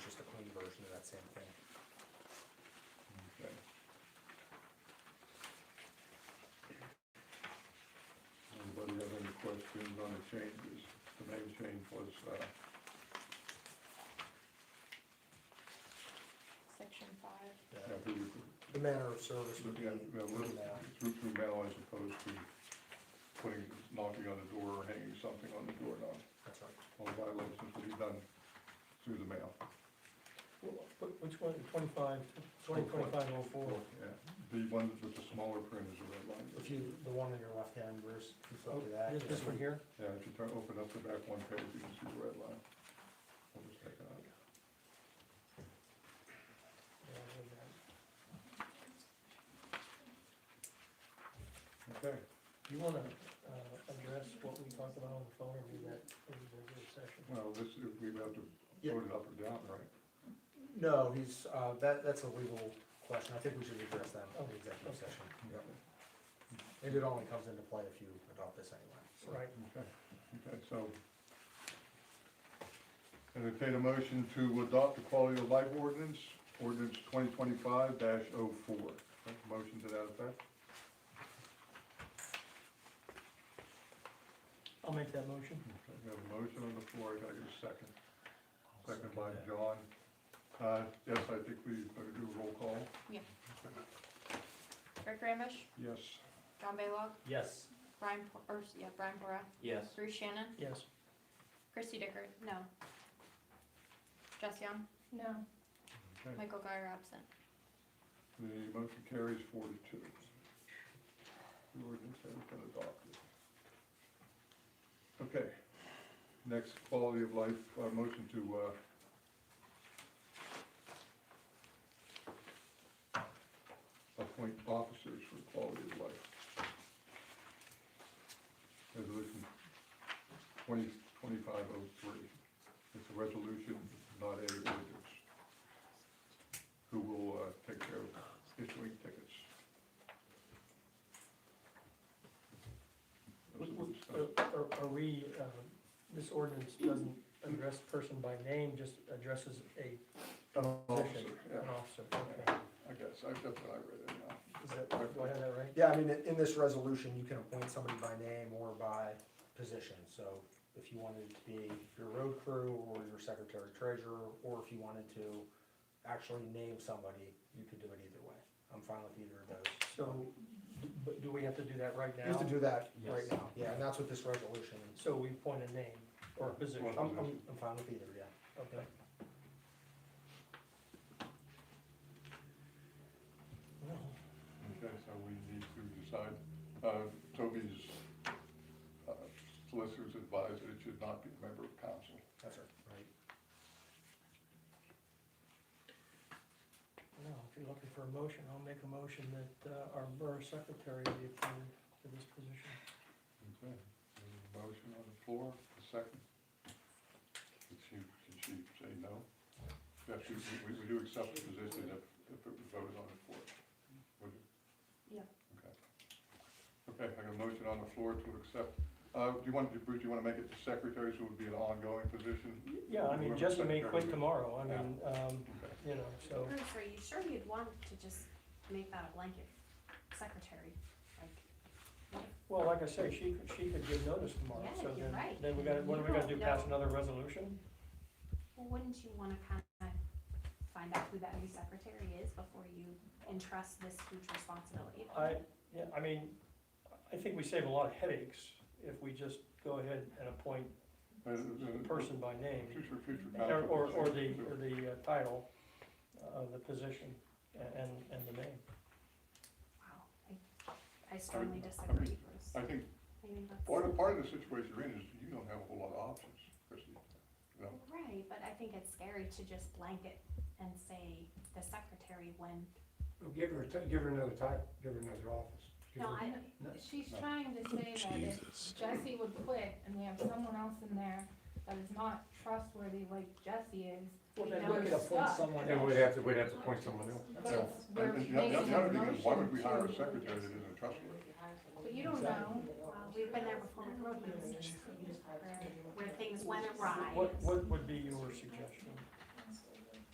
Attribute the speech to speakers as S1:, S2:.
S1: was, uh,
S2: section five.
S1: yeah,
S3: The-
S1: we would,
S3: The manner of service would be
S1: yeah, yeah, we're
S3: in that.
S1: through, through mail as opposed to putting, knocking on the door or hanging something on the door, no.
S3: That's right.
S1: All violations will be done through the mail.
S4: Wh- wh- Which one, twenty-five, twenty, twenty-five oh four?
S1: Yeah, the one with the smaller print is a red line.
S3: If you, the one on your left hand, Bruce, if you flip to that.
S4: Oh, This this one here?
S1: Yeah, if you turn, open up the back one page, you can see the red line. I'll just take it out.
S4: Yeah, I read that.
S1: Okay,
S4: Do you wanna, uh, address what we talked about on the phone or do that in the regular session?
S1: well, this, we have to
S3: Yeah.
S1: vote it up or down, right?
S3: No, he's, uh, that, that's a legal question, I think we should address that in the executive
S4: Okay.
S3: session. And it only comes into play if you adopt this anyway, so.
S4: Right,
S1: Okay, okay, so. Entertain a motion to adopt the quality of life ordinance, ordinance twenty twenty-five oh 4 Motion to that effect?
S4: I'll make that motion.
S1: Okay, We have a motion on the floor, can I get a second? Second by John. Uh, yes, I think we better do a roll call.
S2: Rick Ramish,
S1: Yes,
S2: John Baylog,
S5: Yes.
S2: Brian, Po- or, yeah, Brian Bora,
S5: Yes.
S2: Bruce Shannon,
S4: Yes.
S2: Christy Dicker, no. Jess Young? No.
S1: okay.
S2: Michael Guyer absent.
S1: The motion carries four to two. The ordinance has been adopted. Okay, next quality of life, uh, motion to, uh, uh, appoint officers for quality of life. Resolution twenty, twenty-five oh three. It's a resolution, not a ordinance. Who will, uh, take care of issuing tickets. Those are the stuff.
S4: Are, are we, uh, this ordinance doesn't address person by name, just addresses a
S1: An
S4: position,
S1: officer,
S4: an
S1: yeah,
S4: officer, okay.
S1: I guess, I- that's what I read it now.
S4: Is that, do I have that right?
S3: Yeah, I mean, in- in this resolution, you can appoint somebody by name or by position, so if you wanted it to be your road crew or your secretary treasurer, or if you wanted to actually name somebody, you could do it either way. I'm fine with either of those.
S4: So, but do we have to do that right now?
S3: You have to do that right
S5: Yes.
S3: now, yeah, and that's what this resolution is.
S4: So we point a name or a position,
S3: I'm, I'm, I'm fine with either, yeah.
S4: okay.
S1: Okay, so we need to decide, uh, Toby's uh, solicitors advised that it should not be a member of council.
S3: That's right. Right.
S4: No, if you're looking for a motion, I'll make a motion that uh, our borough secretary be appointed to this position.
S1: Okay. Motion on the floor, a second. Can she, can she say no? Yes, we, we- we do accept the position if, if it was voted on the floor. Would you?
S2: Yeah.
S1: Okay. Okay, I got a motion on the floor to accept, uh, do you want, Bruce, do you wanna make it the secretary, so it would be an ongoing position?
S4: Yeah, I mean,
S1: Whoever
S4: Jesse may quit
S1: secretary-
S4: tomorrow, I mean, um,
S1: Okay.
S4: you know, so,
S6: Bruce, are you sure you'd want to just make that a blanket secretary? Like,
S4: well, like I say, she could, she could give notice tomorrow,
S6: Yeah,
S4: so
S6: you're
S4: then,
S6: right.
S4: then we gotta, what are we gonna do,
S6: You don't
S4: pass
S6: know.
S4: another resolution?
S6: well, wouldn't you wanna kinda find out who that new secretary is before you entrust this huge responsibility? to
S4: I,
S6: them?
S4: yeah, I mean, I think we save a lot of headaches if we just go ahead and appoint
S1: Uh, uh,
S4: person by name,
S1: Future, future.
S4: or, or or the,
S1: council.
S4: or the uh, title of the position a- and, and the name.
S6: Wow, I, I strongly
S1: I mean-
S6: disagree, Bruce.
S1: I think
S6: I mean, that's-
S1: part of, part of the situation you're in is you don't have a whole lot of options, Christie. You know,
S6: Right, but I think it's scary to just blanket and say the secretary when,
S7: Give her, a ti- give her another title, give her another office. Give
S6: no,
S7: her-
S6: I,
S8: She's trying to say that if Jesse would quit and we have someone else in there that is not trustworthy like Jesse is,
S4: Well,
S8: we
S4: then
S8: know
S4: we could
S8: we're
S4: appoint
S8: stuck.
S4: someone
S7: And
S4: else.
S7: we'd have to, we'd have to appoint someone else.
S8: But it's-
S1: And-
S8: we're
S1: and the other-
S8: making
S1: the
S8: a
S1: other thing is, Why would we hire a
S8: motion to-
S1: secretary that isn't trustworthy?
S8: But you don't know.
S6: well, we've been there before with road users, where- where things went awry.
S4: What, what would be your suggestion?